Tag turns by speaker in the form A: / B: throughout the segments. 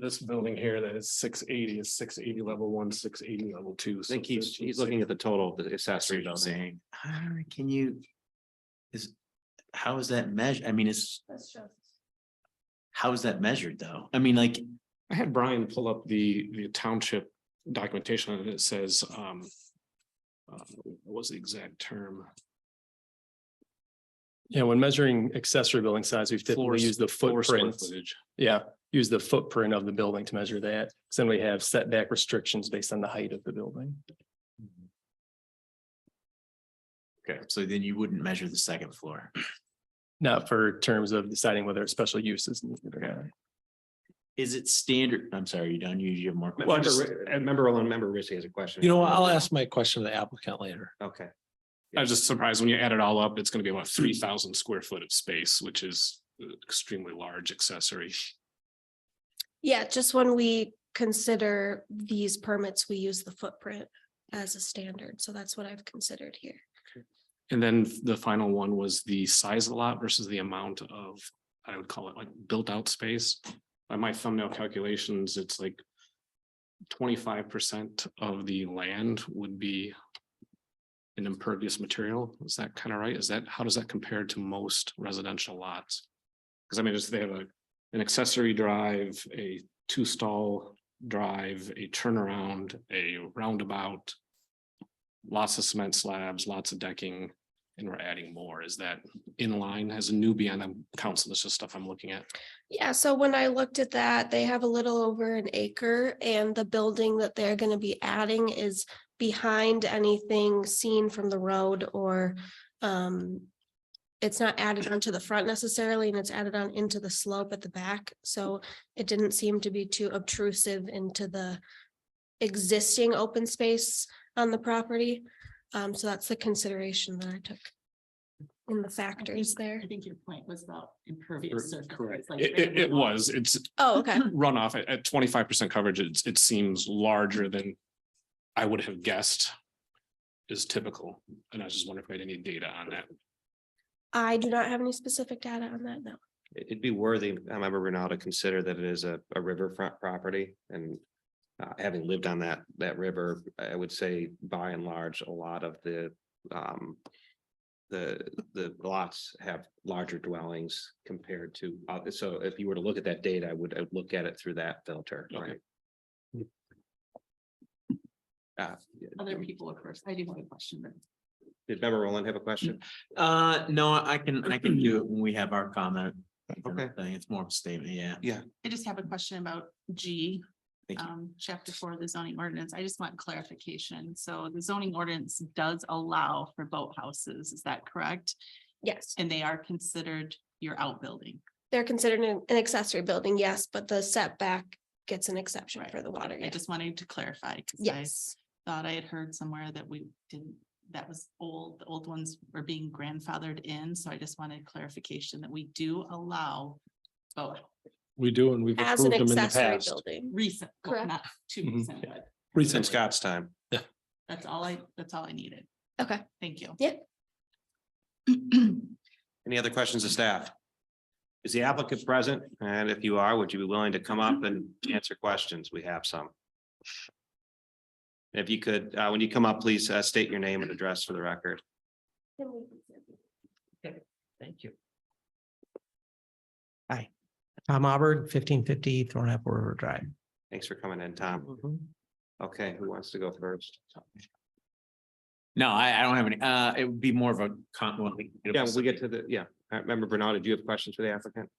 A: this building here that is six eighty is six eighty level one, six eighty level two.
B: I think he's, he's looking at the total of the accessory
C: I'm
B: building.
C: saying, "Ah, can you? Is, how is that measured? I mean, it's, how is that measured though? I mean, like,
A: I had Brian pull up the, the township documentation and it says, um. uh, What was the exact term?
D: Yeah, when measuring accessory building size, we've
A: Floor
D: typically
A: s-
D: used the
A: Floor square
D: footprint.
A: footage.
D: Yeah, use the footprint of the building to measure that. 'cause Then we have setback restrictions based on the height of the building.
C: so then you wouldn't measure the second floor.
D: Not for terms of deciding whether it's special use is needed or not.
C: Is it standard? I'm sorry, you don't usually have more.
B: Well, I
C: questions.
B: just, I remember, I remember Richie has a question.
E: You know, what? I'll ask my question to the applicant later.
B: Okay,
A: I was just surprised when you add it all up, it's gonna be about three thousand square foot of space, which is uh, extremely large accessory.
F: Yeah, just when we consider these permits, we use the footprint as a standard. So that's what I've considered here.
A: And then the final one was the size of the lot versus the amount of, I would call it like built out space. By my thumbnail calculations, it's like twenty-five percent of the land would be an impervious material. Is that kind of right? Is that, how does that compare to most residential lots? Because I mean, just they have a, an accessory drive, a two-stall drive, a turnaround, a roundabout lots of cement slabs, lots of decking, and we're adding more. Is that in line as a newbie on the council? This is stuff I'm looking at.
F: Yeah, so when I looked at that, they have a little over an acre and the building that they're gonna be adding is behind anything seen from the road or um it's not added onto the front necessarily and it's added on into the slope at the back. So it didn't seem to be too obtrusive into the existing open space on the property. Um, so that's the consideration that I took in the
G: I
F: factors
G: think-
F: there.
G: I think your point was about impervious surface.
A: Correct.
G: It's like
A: It, it, it
G: gravel.
A: was, it's
F: Oh, okay.
A: runoff at, at twenty-five percent coverage. It's, it seems larger than I would have guessed is typical. And I was just wondering if we had any data on that.
F: I do not have any specific data on that, no.
B: It- it'd be worthy, I remember Renal to consider that it is a, a riverfront property and uh, having lived on that, that river, I would say by and large, a lot of the um the, the lots have larger dwellings compared to, uh, so if you were to look at that data, I would, I would look at it through that filter, right? Uh,
G: Other people, of course, I do have a question, but
B: did Member Roland have a question?
C: Uh, no, I can, I can do it when we have our comment.
B: Okay.
C: Thing, it's more of a statement, yeah.
G: I just have a question about G.
C: Thank you.
G: Um, chapter four of the zoning ordinance. I just want clarification. So the zoning ordinance does allow for boathouses, is that correct?
F: Yes,
G: And they are considered your outbuilding.
F: they're considered an an accessory building, yes, but the setback gets an exception
G: Right.
F: for the water.
G: I
F: yeah.
G: just wanted to clarify. 'cause I
F: Yes,
G: Thought I had heard somewhere that we didn't, that was old, the old ones were being grandfathered in, so I just wanted clarification that we do allow boat
E: We do, and we've
F: as an
E: approved them in the
F: accessory
E: past.
F: building.
G: recent, well,
F: Correct.
G: not too
E: Mhm.
G: recent, but
B: In
E: Recently.
B: Scott's time.
G: that's all I, that's all I needed.
F: Okay.
G: Thank you.
F: Yeah.
B: Any other questions of staff? Is the applicant present? And if you are, would you be willing to come up and answer questions? We have some. If you could, uh, when you come up, please uh, state your name and address for the record.
H: Thank you. Hi, Tom Auburn, fifteen fifty Thornapple River Drive.
B: Thanks for coming in, Tom. Okay, who wants to go first?
C: No, I, I don't have any, uh, it would be more of a con. well, we-
B: Yeah, we get to the, yeah. I remember Bernard, did you have questions for the applicant?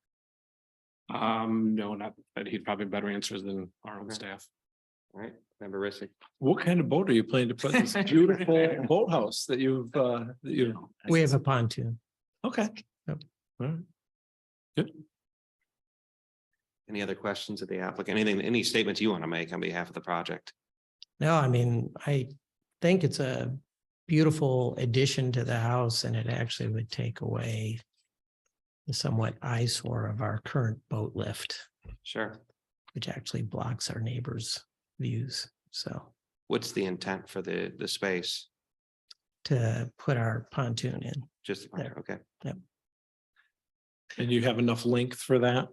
A: Um, no, not, but he'd probably better answers than our own
B: Okay.
A: staff.
B: All right, member Rissy.
E: What kind of boat are you planning to put in this beautiful boathouse that you've, uh, that you,
H: We have a pontoon.
E: okay.
B: Any other questions of the applicant? Anything, any statements you want to make on behalf of the project?
H: No, I mean, I think it's a beautiful addition to the house and it actually would take away the somewhat eyesore of our current boat lift,
B: Sure.
H: which actually blocks our neighbors' views. So
B: What's the intent for the, the space?
H: to put our pontoon in.
B: Just,
H: There.
B: okay.
E: And you have enough length for that?